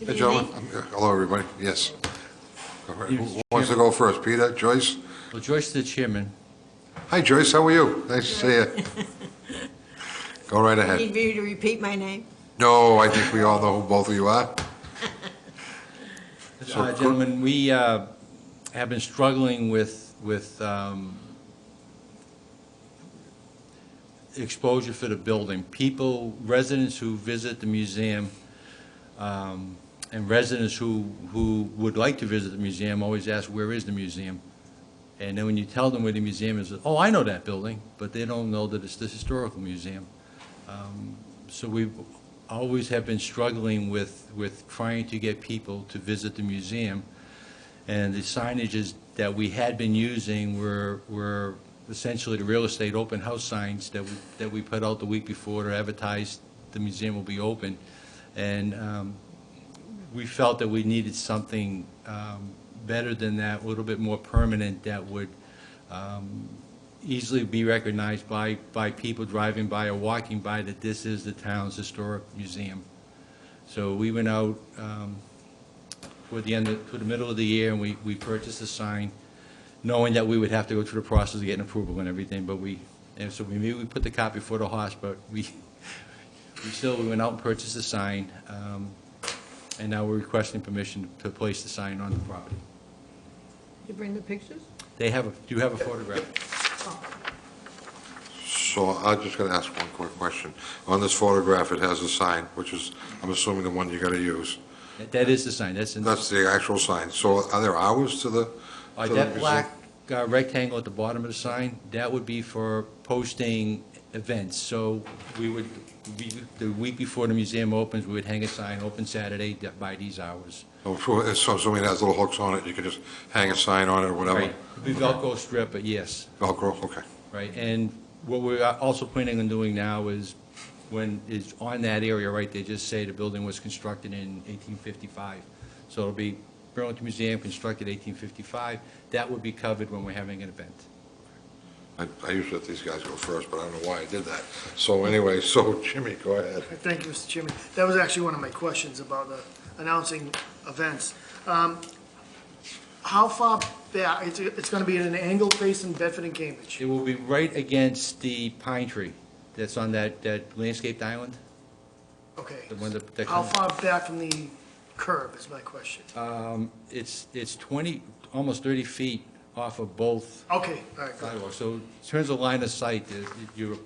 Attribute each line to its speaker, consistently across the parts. Speaker 1: Hey, gentlemen, Um, hello, everybody, yes. All right, Who
Speaker 2: Yes,
Speaker 1: who wants to go first, Peter, Joyce?
Speaker 2: Well, Joyce is the chairman.
Speaker 1: Hi, Joyce, how are you? Nice to see you. Go right ahead.
Speaker 3: Need me to repeat my name?
Speaker 1: No, I think we all know who both of you are. So
Speaker 2: Uh,
Speaker 1: could-
Speaker 2: Gentlemen, we uh, have been struggling with, with um, exposure for the building. People, residents who visit the museum um, and residents who, who would like to visit the museum always ask, where is the museum? And then when you tell them where the museum is, oh, I know that building, but they don't know that it's the historical museum. Um, So we always have been struggling with, with trying to get people to visit the museum. And the signages that we had been using were, were essentially the real estate open house signs that, we that we put out the week before to advertise the museum will be open. And um, we felt that we needed something um, better than that, a little bit more permanent that would um, easily be recognized by, by people driving by or walking by that this is the town's historic museum. So we went out um, toward the end, of- toward the middle of the year, and we, we purchased a sign, knowing that we would have to go through the process of getting approval and everything, but we, and so we knew we put the cop before the horse, but we, we still, we went out and purchased a sign, um, and now we're requesting permission to place the sign on the property.
Speaker 3: You bring the pictures?
Speaker 2: They have, a do you have a photograph?
Speaker 1: So I'm just going to ask one quick question. On this photograph, it has a sign, which is, I'm assuming the one you're going to use.
Speaker 2: That- That is the sign, that's in.
Speaker 1: That's the actual sign. So are there hours to the?
Speaker 2: Uh,
Speaker 1: to the
Speaker 2: That
Speaker 1: museum?
Speaker 2: black uh, rectangle at the bottom of the sign, that would be for posting events. So we would, we- the week before the museum opens, we would hang a sign, open Saturday that- by these hours.
Speaker 1: Oh, So so assuming it has little hooks on it, you can just hang a sign on it or whatever?
Speaker 2: Right, It'd be Velcro strip, but yes,
Speaker 1: Velcro, okay.
Speaker 2: right? And what we're also planning on doing now is when, is on that area, right, they just say the building was constructed in 1855. So it'll be Burlington Museum constructed 1855. That would be covered when we're having an event.
Speaker 1: I I usually let these guys go first, but I don't know why I did that. So anyway, so Jimmy, go ahead.
Speaker 4: Thank you, Mr. Chairman. That was actually one of my questions about the announcing events. Um, How far back, it's, it's gonna be at an angle facing Bedford and Cambridge.
Speaker 2: It will be right against the pine tree that's on that, that landscaped island.
Speaker 4: Okay.
Speaker 2: The one that- that
Speaker 4: How
Speaker 2: comes- Uh,
Speaker 4: far back from the curb is my question.
Speaker 2: It's, it's 20, almost 30 feet off of both
Speaker 4: Okay, all right, good.
Speaker 2: sidewalks. So in terms of line of sight, there's- you're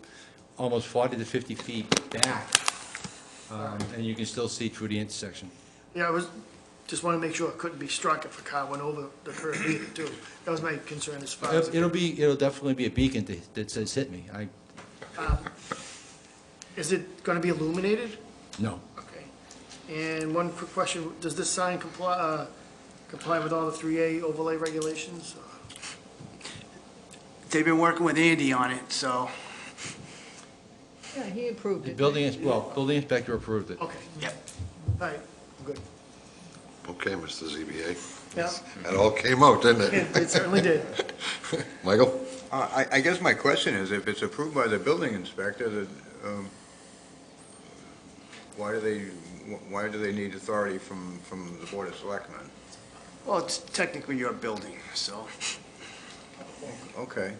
Speaker 2: almost 40 to 50 feet back, um, and you can still see through the intersection.
Speaker 4: Yeah, I was, just wanna make sure it couldn't be struck if a car went over the curb either, too. That was my concern as far as,
Speaker 2: It'll it'll be, it'll definitely be a beacon that- that says, "Hit me." I,
Speaker 4: is it gonna be illuminated?
Speaker 2: no.
Speaker 4: Okay. And one quick question, does this sign comply, uh, comply with all the three A overlay regulations?
Speaker 5: They've been working with Andy on it, so,
Speaker 3: Yeah, he approved
Speaker 2: The
Speaker 3: it.
Speaker 2: building, ins- well, building inspector approved it.
Speaker 4: Okay,
Speaker 5: yep.
Speaker 4: all right, good.
Speaker 1: Okay, Mr. ZBA.
Speaker 4: Yeah,
Speaker 1: That all came out, didn't it?
Speaker 4: it it certainly did.
Speaker 1: Michael?
Speaker 6: Uh, I I guess my question is, if it's approved by the building inspector, that, um, why do they, why do they need authority from, from the Board of Selectmen?
Speaker 5: Well, it's technically your building, so
Speaker 6: Okay.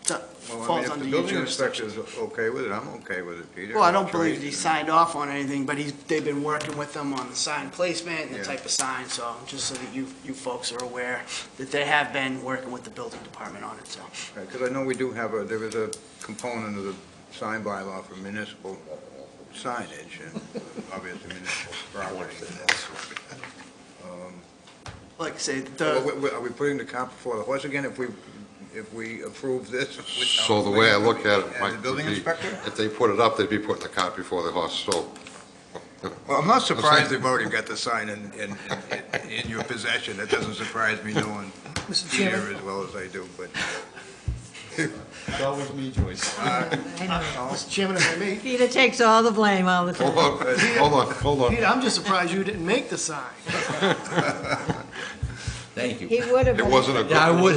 Speaker 5: it's a-
Speaker 6: Well, I mean,
Speaker 5: falls
Speaker 6: if
Speaker 5: under
Speaker 6: the
Speaker 5: your
Speaker 6: building inspector's
Speaker 5: jurisdiction.
Speaker 6: okay with it, I'm okay with it, Peter.
Speaker 5: Well, I don't believe
Speaker 6: Tracy.
Speaker 5: he signed off on anything, but he's, they've been working with them on the sign placement and the
Speaker 6: Yeah.
Speaker 5: type of sign, so just so that you, you folks are aware that they have been working with the building department on it, so.
Speaker 6: Because I know we do have a, there is a component of the sign bylaw for municipal signage and obviously municipal property.
Speaker 5: Like I say,
Speaker 6: Well,
Speaker 1: Uh,
Speaker 5: the,
Speaker 6: we- we- Are we putting the cop before the horse again if we, if we approve this? without-
Speaker 1: So the way I look at it, Mike,
Speaker 6: And the
Speaker 1: would
Speaker 6: building
Speaker 1: be,
Speaker 6: inspector?
Speaker 1: if they put it up, they'd be putting the cart before the horse, so.
Speaker 6: Well, I'm not surprised they've already got the sign in, in, in- in your possession. That doesn't surprise me knowing
Speaker 4: Mr.
Speaker 6: Peter
Speaker 4: Chairman,
Speaker 6: as well as I do, but.
Speaker 2: It's always me, Joyce.
Speaker 3: I know.
Speaker 4: Mr. Uh, Chairman, if I may,
Speaker 3: Peter takes all the blame all the
Speaker 1: Hold
Speaker 3: time.
Speaker 1: on, hold on, hold on.
Speaker 4: Peter, I'm just surprised you didn't make the sign.
Speaker 2: Thank you.
Speaker 3: He would have.
Speaker 1: It wasn't a good.
Speaker 2: Yeah, I would